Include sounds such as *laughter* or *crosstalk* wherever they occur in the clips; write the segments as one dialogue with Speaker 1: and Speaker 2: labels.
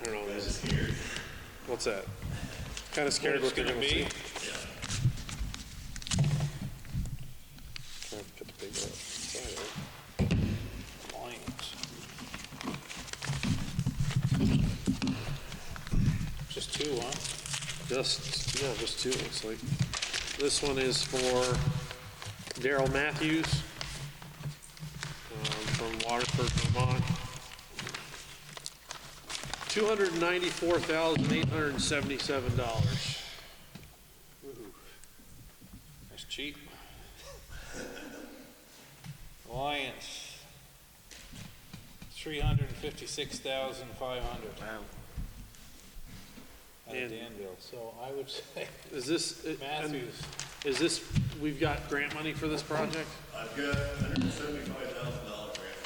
Speaker 1: I don't know. That's scared. What's that? Kind of scared what
Speaker 2: it's
Speaker 1: they're
Speaker 2: gonna
Speaker 1: gonna
Speaker 2: be?
Speaker 1: see.
Speaker 2: Yeah.
Speaker 1: Okay, Put the paper up. Sorry, there. Lines.
Speaker 2: Just two, huh?
Speaker 1: Just, yeah, just two, looks like. This one is for Daryl Matthews um, from Waterford, Vermont. $294,877.
Speaker 2: That's cheap. Alliance, three hundred and fifty-six thousand five hundred. Wow. Out
Speaker 1: And-
Speaker 2: of Danville, so I would *laughs* say
Speaker 1: Is this, and
Speaker 2: Matthews,
Speaker 1: is this, we've got grant money for this project?
Speaker 3: I've got hundred and seventy-five thousand dollar grant.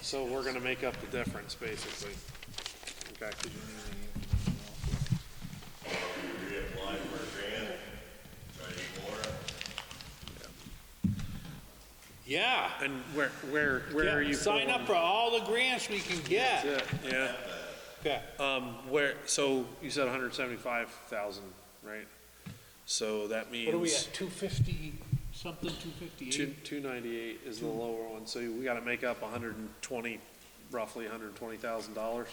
Speaker 1: So we're gonna make up the difference, basically. Okay.
Speaker 3: We applied for a grant, try to get more.
Speaker 2: yeah.
Speaker 1: And where, where, where are
Speaker 2: Yeah,
Speaker 1: you?
Speaker 2: Sign up for all the grants we can
Speaker 1: pulling-
Speaker 2: get.
Speaker 1: That's it, Yeah.
Speaker 2: Okay.
Speaker 1: Um, where, so you said hundred seventy-five thousand, right? So that
Speaker 2: What are we
Speaker 1: means
Speaker 2: at, two fifty, something, two
Speaker 1: two,
Speaker 2: fifty-eight?
Speaker 1: two ninety-eight is the lower one, so we gotta make up hundred and twenty, roughly hundred and twenty thousand dollars.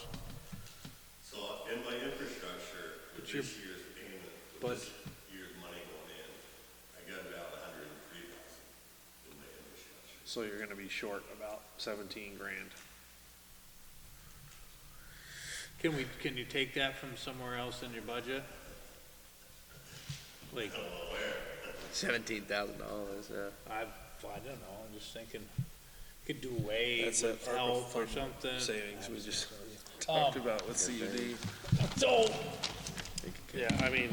Speaker 3: So in my infrastructure, with
Speaker 1: your-
Speaker 3: this year's payment,
Speaker 1: but-
Speaker 3: with this year's money going in, I got about hundred and three thousand in my infrastructure.
Speaker 1: So you're gonna be short about seventeen grand.
Speaker 2: Can we, can you take that from somewhere else in your budget? Like,
Speaker 4: Seventeen thousand dollars, uh, yeah.
Speaker 2: I, I don't know, I'm just thinking, could do away
Speaker 1: That's
Speaker 2: with
Speaker 1: it, ARPA
Speaker 2: health or
Speaker 1: fund
Speaker 2: something.
Speaker 1: Savings we just talked about with
Speaker 2: Um,
Speaker 1: CUD.
Speaker 2: So,
Speaker 1: Yeah, I mean.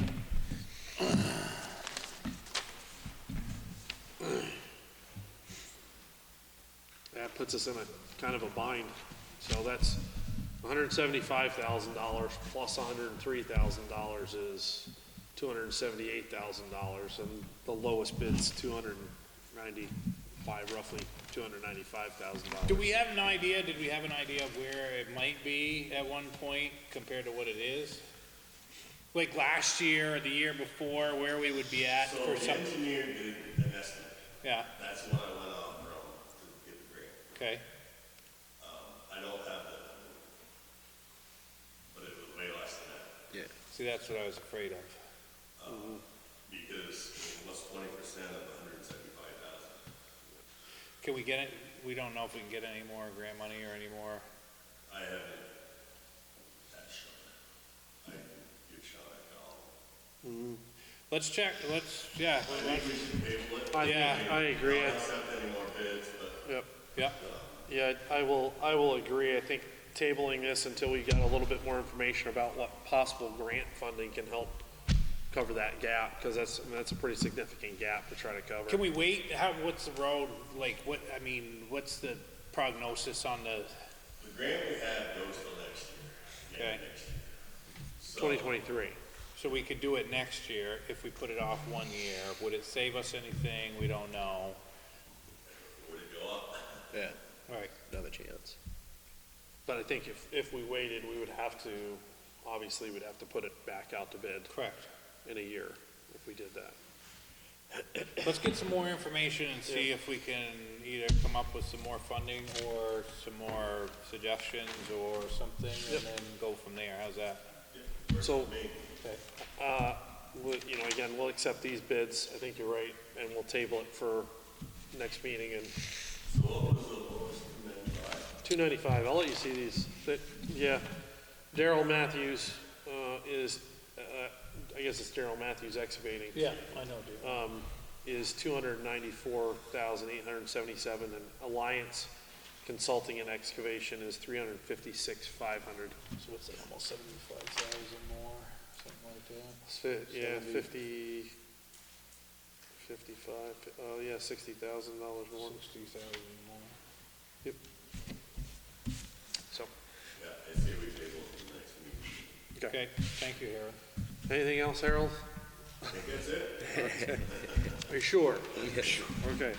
Speaker 1: That puts us in a kind of a bind, so that's hundred and seventy-five thousand dollars plus hundred and three thousand dollars is two hundred and seventy-eight thousand dollars, and the lowest bid's two hundred and ninety-five, roughly two hundred and ninety-five thousand dollars.
Speaker 2: do we have an idea, did we have an idea of where it might be at one point compared to what it is? Like last year or the year before, where we would be at
Speaker 3: So
Speaker 2: for
Speaker 3: the
Speaker 2: some,
Speaker 3: engineer did an estimate,
Speaker 2: yeah,
Speaker 3: that's what I went off from to get the grant. Um,
Speaker 2: okay,
Speaker 3: I don't have that, number, but it was way less than that.
Speaker 2: see, that's what I was afraid of.
Speaker 3: Because what's twenty percent of hundred and seventy-five thousand?
Speaker 2: Can we get it, we don't know if we can get any more grant money or any more,
Speaker 3: I haven't had a shot. I can give a shot at all.
Speaker 2: let's check, let's, yeah,
Speaker 3: I think we should table it.
Speaker 1: I,
Speaker 2: Yeah.
Speaker 1: I agree,
Speaker 3: Don't
Speaker 1: I-
Speaker 3: accept any more bids, but
Speaker 1: yep.
Speaker 2: yeah,
Speaker 1: Yeah, I will, I will agree. I think tabling this until we got a little bit more information about what possible grant funding can help cover that gap, because that's, I mean, that's a pretty significant gap to try to cover.
Speaker 2: Can we wait, how, what's the road, like, what, I mean, what's the prognosis on the,
Speaker 3: the grant we have goes till next year.
Speaker 2: okay?
Speaker 1: Twenty twenty-three.
Speaker 2: So we could do it next year if we put it off one year. Would it save us anything? We don't know.
Speaker 3: Would it go up?
Speaker 4: Yeah,
Speaker 2: Right.
Speaker 4: another chance.
Speaker 1: But I think if, if we waited, we would have to, obviously, we'd have to put it back out to bid
Speaker 2: Correct.
Speaker 1: in a year if we did that.
Speaker 2: Let's get some more information and see if we can either come up with some more funding or some more suggestions or something
Speaker 1: Yep.
Speaker 2: and then go from there. How's that?
Speaker 1: So,
Speaker 2: Okay.
Speaker 1: uh, we- you know, again, we'll accept these bids. I think you're right, and we'll table it for next meeting and
Speaker 3: So what was the lowest amendment?
Speaker 1: Two ninety-five, I'll let you see these, but, yeah, Daryl Matthews, uh, is, uh, I guess it's Daryl Matthews excavating,
Speaker 2: Yeah, I know, dude.
Speaker 1: um, is two hundred and ninety-four thousand eight hundred and seventy-seven, and Alliance Consulting and Excavation is three hundred and fifty-six five hundred.
Speaker 2: So what's that, almost seventy-five thousand more, something like that?
Speaker 1: Yeah,
Speaker 2: Seventy.
Speaker 1: fifty, fifty-five, oh, yeah, sixty thousand dollars more,
Speaker 2: Sixty thousand more.
Speaker 1: so,
Speaker 3: Yeah, I say we table it till next meeting.
Speaker 1: okay.
Speaker 2: Okay, thank you, Harold.
Speaker 1: Anything else, Harold?
Speaker 3: I think that's it.
Speaker 1: Are you sure? Okay.